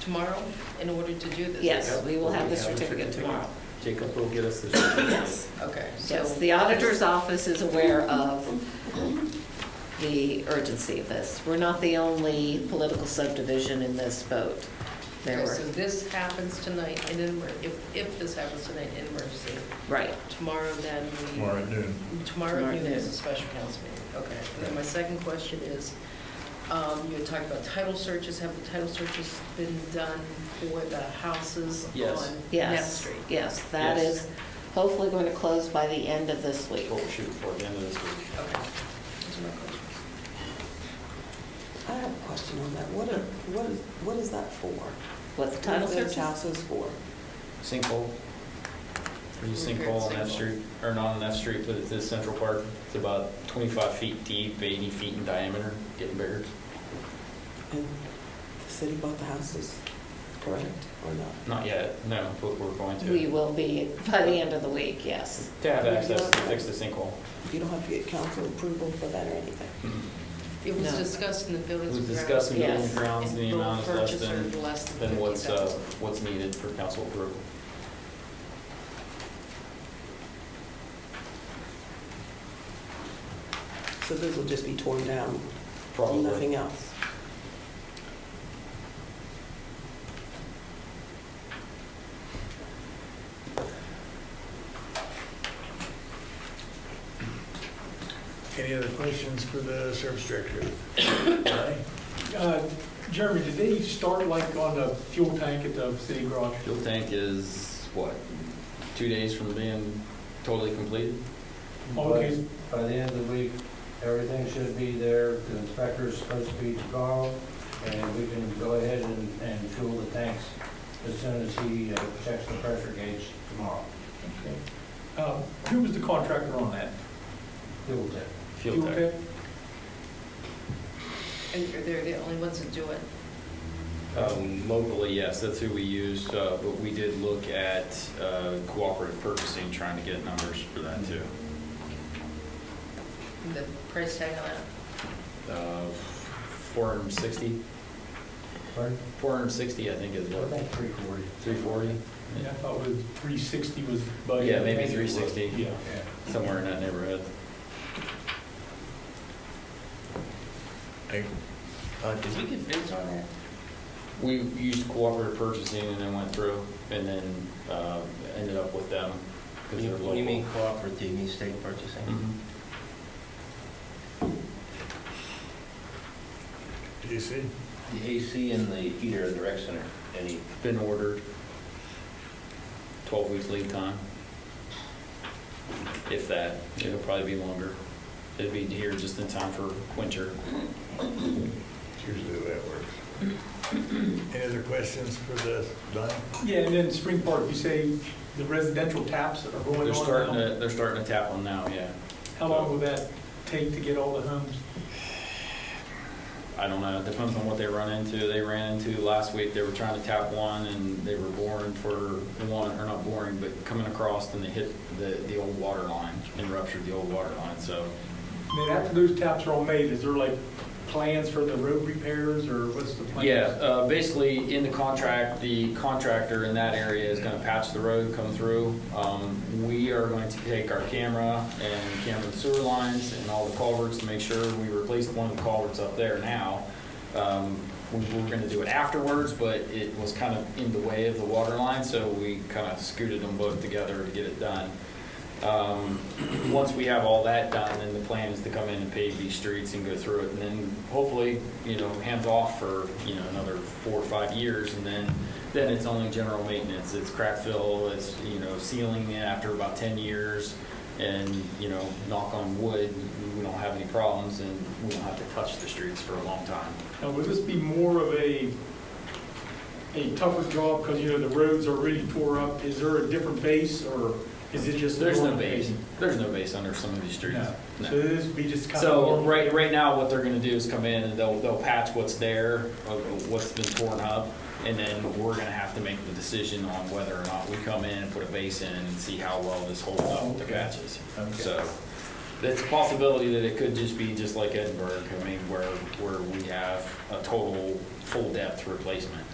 tomorrow in order to do this? Yes, we will have the We have a certificate tomorrow. Jacob will get us the certificate. Yes, Okay, so. yes, the auditor's office is aware of the urgency of this. We're not the only political subdivision in this boat. There Okay, were, so this happens tonight in an, emer- if, if this happens tonight in emergency, right, tomorrow then we. Tomorrow at noon. Tomorrow Tomorrow noon is a noon. special council meeting, okay. And then my second question is, um, you had talked about title searches, have the title searches been done for the houses on Yes. Neff yes, Street? yes. That Yes. is hopefully going to close by the end of this week. We'll shoot for the end of this week. Okay. Those are my questions. I have a question on that. What are, what is, what is that for? What the title What are search those houses for? Sinkhole. There's a Repaired sinkhole on F sinkhole. Street, or not on F Street, but it's in Central Park. It's about 25 feet deep, 80 feet in diameter, getting bigger. And the city bought the houses, correct, or not? Not yet, no, but we're going to. We will be by the end of the week, yes. To have access to fix the sinkhole. You don't have to get council approval for that or anything. It was No. discussed in the buildings. We've and discussed in grounds. building Yes. grounds, the And the amount is less purchaser than, less than than what's, uh, 50,000. what's needed for council approval. So this will just be torn down, Probably. nothing else. Any other questions for the service director? Uh, Jeremy, did they start like on the fuel tank at the city garage? Fuel tank is, what, two days from being totally completed? Okay, By the end of the week, everything should be there, the inspector's supposed to be tomorrow, and we can go ahead and, and fuel the tanks as soon as he uh, checks the pressure gauge tomorrow. Um, who was the contractor on that? Fuel tank. Fuel tank. And you're- they're the only ones that do it. Um, Locally, yes, that's who we used, uh, but we did look at uh, cooperative purchasing, trying to get numbers for that too. The price tag on that, Uh, 460, Pardon? 460, I think is I what, think three forty. 340? Yeah, I thought it was 360 was budgeted. Yeah, maybe 360. Yeah. Somewhere in that neighborhood. Hey, uh, did we get bids on that? We used cooperative purchasing and then went through and then uh, ended up with them because they're local. You mean cooperative, you mean state purchasing? Mhm. Did you see? The AC and the heater in the rec center, any, Been ordered, 12 weeks lead time. If that, it'll probably be longer. It'd be here just in time for winter. It's usually the way it works. Any other questions for the, Don? Yeah, and then Spring Park, you say the residential taps are going on They're starting now? to, they're starting to tap on now, yeah. How long will that take to get all the homes? I don't know, it depends on what they run into. They ran into last week, they were trying to tap one and they were boring for one, or not boring, but coming across and they hit the, the old water line and ruptured the old water line, so. And then after those taps are all made, is there like plans for the road repairs or what's the plan? Yeah, uh, basically, in the contract, the contractor in that area is gonna patch the road, come through. Um, We are going to take our camera and camera the sewer lines and all the culverts to make sure we replace one of the culverts up there now. Um, We were gonna do it afterwards, but it was kind of in the way of the water line, so we kind of scooted them both together to get it done. Um, Once we have all that done, then the plan is to come in and pave these streets and go through it, and then hopefully, you know, hands off for, you know, another four or five years, and then, then it's only general maintenance, it's crack fill, it's, you know, sealing it after about ten years, and, you know, knock on wood, we don't have any problems, and we don't have to touch the streets for a long time. Now, would this be more of a, a tougher job, because, you know, the roads are really tore up? Is there a different base, or is it just? There's no normal base, there's no base under some of these streets. No. No. So this would be just kind of. So normal? right, right now, what they're gonna do is come in and they'll, they'll patch what's there, uh, what's been torn up, and then we're gonna have to make the decision on whether or not we come in and put a base in and see how well this holds up with the Okay. patches. Okay. So, it's a possibility that it could just be just like Edinburgh, I mean, where, where we have a total, full depth replacement.